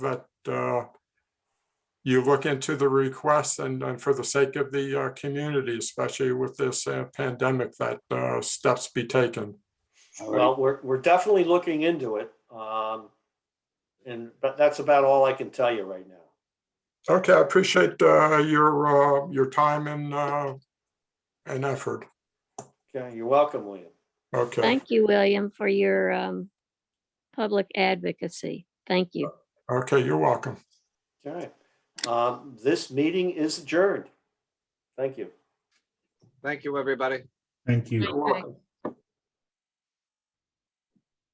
that uh, you look into the requests and, and for the sake of the uh, community, especially with this uh, pandemic, that uh, steps be taken. All right, Well, we're, we're definitely looking into it. Um, and, but that's about all I can tell you right now. Okay, I appreciate uh, your, uh, your time and, uh, and effort. Okay, you're welcome, William. Okay, Thank you, William, for your um, public advocacy. Thank you. okay, you're welcome. Okay. Um, this meeting is adjourned. Thank you. Thank you, everybody. Thank you. You're welcome.